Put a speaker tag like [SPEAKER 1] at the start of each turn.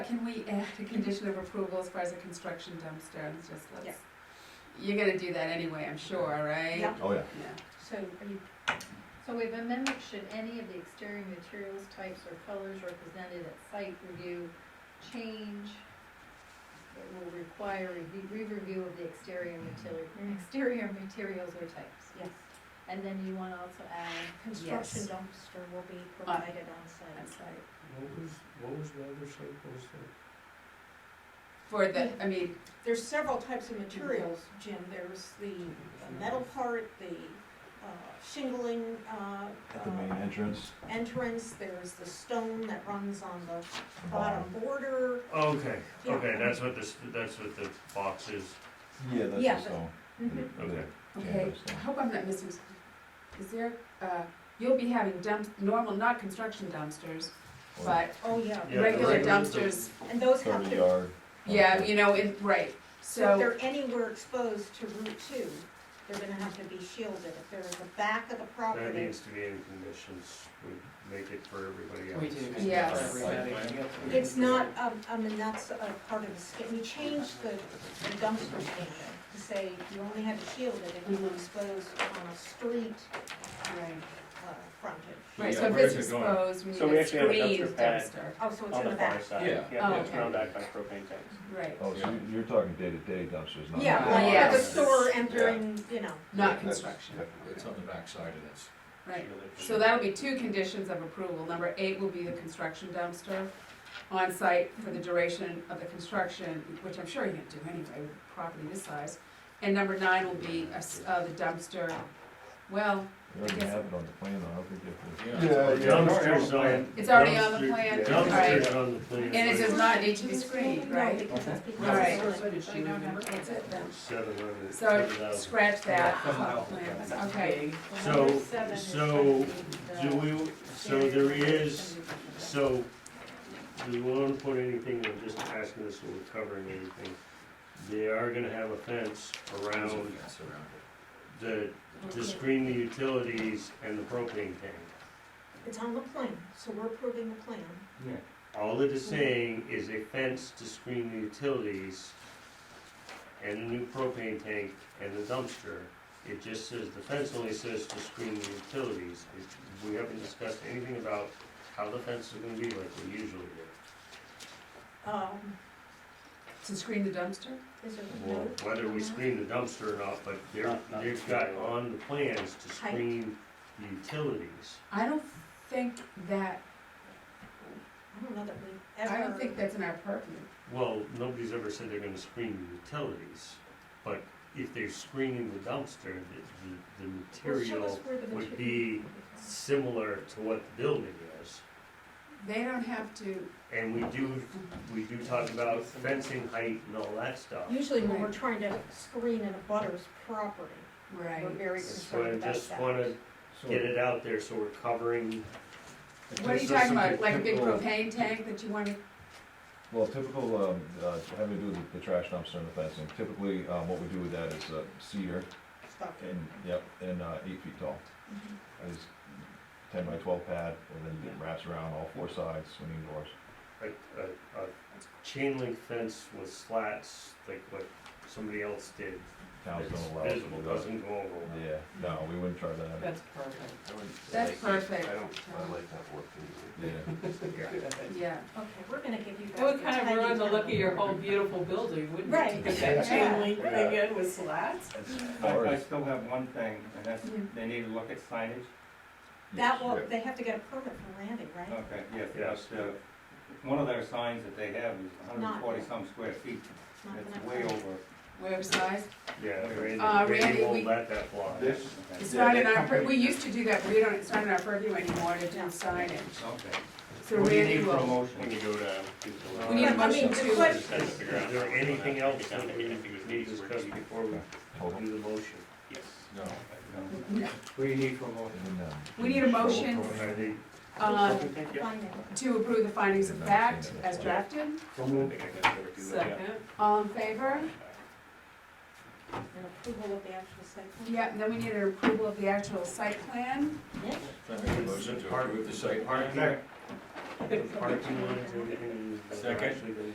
[SPEAKER 1] Can we add a condition of approval as far as a construction dumpster, It's just
[SPEAKER 2] Yeah.
[SPEAKER 1] let's, you're gonna do that anyway, I'm sure, right?
[SPEAKER 2] Yeah.
[SPEAKER 3] Oh, yeah.
[SPEAKER 1] Yeah.
[SPEAKER 4] So are you, so we've amended, should any of the exterior materials, types, or colors represented at site review change? It will require a re- re-review of the exterior material,
[SPEAKER 2] Mm.
[SPEAKER 4] exterior materials or types.
[SPEAKER 2] Yes,
[SPEAKER 4] And then you wanna also add,
[SPEAKER 2] construction
[SPEAKER 1] Yes.
[SPEAKER 2] dumpster will be provided on
[SPEAKER 1] I'm
[SPEAKER 2] site.
[SPEAKER 1] sorry.
[SPEAKER 5] What was, what was the other site was that?
[SPEAKER 1] For the, I mean,
[SPEAKER 2] There's several types of materials, Jim, there's the the metal part, the uh, shingling, uh,
[SPEAKER 3] At the main
[SPEAKER 2] uh,
[SPEAKER 3] entrance.
[SPEAKER 2] entrance, there's the stone that runs on the bottom border.
[SPEAKER 6] Okay,
[SPEAKER 2] Yeah.
[SPEAKER 6] okay, that's what this, that's what the box is.
[SPEAKER 3] Yeah, that's
[SPEAKER 2] Yeah,
[SPEAKER 3] the stone.
[SPEAKER 2] Mhm.
[SPEAKER 6] Okay.
[SPEAKER 1] okay, I hope I'm not missing, something. is there, uh, you'll be having dumps, normal, not construction dumpsters, but
[SPEAKER 2] Oh, yeah,
[SPEAKER 6] Yeah, the
[SPEAKER 1] regular
[SPEAKER 6] regular dump-
[SPEAKER 1] dumpsters,
[SPEAKER 2] and those have
[SPEAKER 3] Thirty
[SPEAKER 2] to,
[SPEAKER 3] yard.
[SPEAKER 1] yeah, you know, in, right,
[SPEAKER 2] so if
[SPEAKER 1] so,
[SPEAKER 2] they're anywhere exposed to Route Two, they're gonna have to be shielded. If they're at the back of the
[SPEAKER 6] That
[SPEAKER 2] property,
[SPEAKER 6] needs to be in conditions, we make it for everybody else.
[SPEAKER 7] We do.
[SPEAKER 6] It's
[SPEAKER 1] Yes.
[SPEAKER 6] not like-
[SPEAKER 2] it's not, um, I mean, that's a part of the, sta- we changed the the dumpster standard to say you only have to shield it if you
[SPEAKER 1] Mhm.
[SPEAKER 2] expose on a street
[SPEAKER 1] right,
[SPEAKER 2] uh, frontage.
[SPEAKER 1] right, so
[SPEAKER 8] Yeah,
[SPEAKER 1] if
[SPEAKER 8] where
[SPEAKER 1] it's
[SPEAKER 8] is it going?
[SPEAKER 1] exposed, we
[SPEAKER 8] So we
[SPEAKER 1] need a
[SPEAKER 8] actually have a
[SPEAKER 1] screened
[SPEAKER 8] dumpster pad.
[SPEAKER 1] dumpster,
[SPEAKER 2] Oh, so it's
[SPEAKER 8] On
[SPEAKER 2] in
[SPEAKER 8] the
[SPEAKER 2] the
[SPEAKER 8] far
[SPEAKER 2] back.
[SPEAKER 8] side,
[SPEAKER 3] Yeah.
[SPEAKER 8] yeah,
[SPEAKER 1] Oh,
[SPEAKER 8] it's
[SPEAKER 1] okay.
[SPEAKER 8] ground back by propane tanks.
[SPEAKER 1] right,
[SPEAKER 3] Oh, so you- you're talking day-to-day dumpsters, not.
[SPEAKER 2] Yeah,
[SPEAKER 1] Oh,
[SPEAKER 2] like for the
[SPEAKER 1] yes.
[SPEAKER 2] store entering, you know,
[SPEAKER 1] not construction,
[SPEAKER 3] It's on the backside of this.
[SPEAKER 1] right. So that'll be two conditions of approval. Number eight will be the construction dumpster on site for the duration of the construction, which I'm sure you can do anyway with a property this size. And number nine will be a s- uh, the dumpster, well,
[SPEAKER 3] You already have it on the plan, though, how could you?
[SPEAKER 6] Dumpsters on.
[SPEAKER 1] it's already on the
[SPEAKER 6] dumpster-
[SPEAKER 1] plan,
[SPEAKER 3] yeah.
[SPEAKER 1] right?
[SPEAKER 6] Dumpsters on the plan.
[SPEAKER 1] And it does not need to be screened, right?
[SPEAKER 2] because it's because
[SPEAKER 1] All right.
[SPEAKER 2] it's
[SPEAKER 7] did she remember?
[SPEAKER 1] That's it then.
[SPEAKER 6] Seven hundred,
[SPEAKER 1] So
[SPEAKER 6] seven thousand.
[SPEAKER 1] scratch that, off the plans. okay.
[SPEAKER 6] So-
[SPEAKER 4] number seven is
[SPEAKER 6] so
[SPEAKER 4] gonna be
[SPEAKER 6] Do
[SPEAKER 4] the
[SPEAKER 6] we, so there is, so, we won't put anything, I'm just asking this, so we're covering everything. They are gonna have a fence around the, to screen the utilities and the propane tank.
[SPEAKER 2] It's on the plan, so we're approving the plan.
[SPEAKER 6] All it is saying is a fence to screen the utilities and a new propane tank and the dumpster. It just says, the fence only says to screen the utilities. It- We haven't discussed anything about how the fence is gonna be like we usually do.
[SPEAKER 2] Um,
[SPEAKER 1] To screen the dumpster?
[SPEAKER 2] is there a
[SPEAKER 6] Well,
[SPEAKER 2] note?
[SPEAKER 6] Whether we screen the dumpster or not, but they're,
[SPEAKER 8] Not- not-
[SPEAKER 6] they've got on the plans to screen the utilities.
[SPEAKER 1] I don't think that,
[SPEAKER 2] I don't know that we ever.
[SPEAKER 1] I don't think that's in our purview.
[SPEAKER 6] Well, nobody's ever said they're gonna screen the utilities, but if they're screening the dumpster, the, the, the
[SPEAKER 2] Well, show us
[SPEAKER 6] material
[SPEAKER 2] where the
[SPEAKER 6] would
[SPEAKER 2] material-
[SPEAKER 6] be similar to what the building is.
[SPEAKER 1] They don't have to,
[SPEAKER 6] And we do, we do talk about fencing height and all that stuff.
[SPEAKER 2] Usually when we're trying to screen an abutter's property,
[SPEAKER 1] right.
[SPEAKER 2] we're very
[SPEAKER 6] So I
[SPEAKER 2] concerned about that.
[SPEAKER 6] just wanna get it out there so we're covering,
[SPEAKER 1] What are you talking about, like a big propane tank that you want to,
[SPEAKER 3] Well, typical, um, uh, having to do with the trash dumpster and the fencing, typically, um, what we do with that is uh, cedar
[SPEAKER 2] Stop it.
[SPEAKER 3] and, yep, and, uh, eight feet tall.
[SPEAKER 2] Mhm.
[SPEAKER 3] It's ten by twelve pad, and then it wraps around all four sides, swinging doors.
[SPEAKER 6] a, a, a chain link fence with slats, like what somebody else did.
[SPEAKER 3] Towns
[SPEAKER 6] It's
[SPEAKER 3] don't allow us to
[SPEAKER 6] visible,
[SPEAKER 3] do that.
[SPEAKER 6] doesn't go over.
[SPEAKER 3] Yeah, no, we wouldn't try that,
[SPEAKER 7] That's perfect.
[SPEAKER 1] that's perfect,
[SPEAKER 3] yeah.
[SPEAKER 1] yeah.
[SPEAKER 2] Okay, we're gonna give you guys.
[SPEAKER 7] It would kind
[SPEAKER 2] the
[SPEAKER 7] of ruin the
[SPEAKER 2] tiny
[SPEAKER 7] look of your
[SPEAKER 2] town.
[SPEAKER 7] whole beautiful building, wouldn't it?
[SPEAKER 2] Right.
[SPEAKER 7] With that chain
[SPEAKER 2] Yeah.
[SPEAKER 7] link thing in with slats?
[SPEAKER 3] As
[SPEAKER 8] I,
[SPEAKER 3] far
[SPEAKER 8] I
[SPEAKER 3] as-
[SPEAKER 8] still have one thing, and that's,
[SPEAKER 1] Yeah.
[SPEAKER 8] they need to look at signage,
[SPEAKER 2] That will,
[SPEAKER 3] Yeah.
[SPEAKER 2] they have to get a permit from Randy, right?
[SPEAKER 8] okay, yes,
[SPEAKER 6] Yes.
[SPEAKER 8] but, uh, one of their signs that they have is hundred and forty some square feet,
[SPEAKER 2] It's not
[SPEAKER 8] that's
[SPEAKER 2] gonna-
[SPEAKER 8] way over
[SPEAKER 1] Where size?
[SPEAKER 6] Yeah,
[SPEAKER 1] Uh,
[SPEAKER 6] Randy,
[SPEAKER 1] Randy,
[SPEAKER 6] Randy
[SPEAKER 1] we-
[SPEAKER 6] won't let that fly.
[SPEAKER 8] this.
[SPEAKER 1] It's not in our, pur- we used to do that, but we don't, it's not in our purview anymore to do signage.
[SPEAKER 8] Okay.
[SPEAKER 1] So
[SPEAKER 8] What do you
[SPEAKER 1] Randy
[SPEAKER 8] need for a
[SPEAKER 1] will,
[SPEAKER 8] motion? When you go to.
[SPEAKER 1] we need a
[SPEAKER 2] I mean,
[SPEAKER 1] motion
[SPEAKER 2] the
[SPEAKER 1] to,
[SPEAKER 2] question-
[SPEAKER 6] Is there anything else that we need to discuss before we
[SPEAKER 3] Hold on.
[SPEAKER 6] do the motion?
[SPEAKER 8] Yes.
[SPEAKER 3] No.
[SPEAKER 8] What do you need for a motion?
[SPEAKER 3] um,
[SPEAKER 1] we need a motion,
[SPEAKER 6] Are they-
[SPEAKER 1] uh,
[SPEAKER 2] Finding.
[SPEAKER 1] to approve the findings of fact as drafted.
[SPEAKER 7] Second.
[SPEAKER 1] All in favor?
[SPEAKER 2] An approval of the actual site plan?
[SPEAKER 1] Yeah, and then we need an approval of the actual site plan.
[SPEAKER 2] Nick?
[SPEAKER 6] Motion to approve the site plan. the parking lots, everything, that they're
[SPEAKER 1] Second.
[SPEAKER 6] actually gonna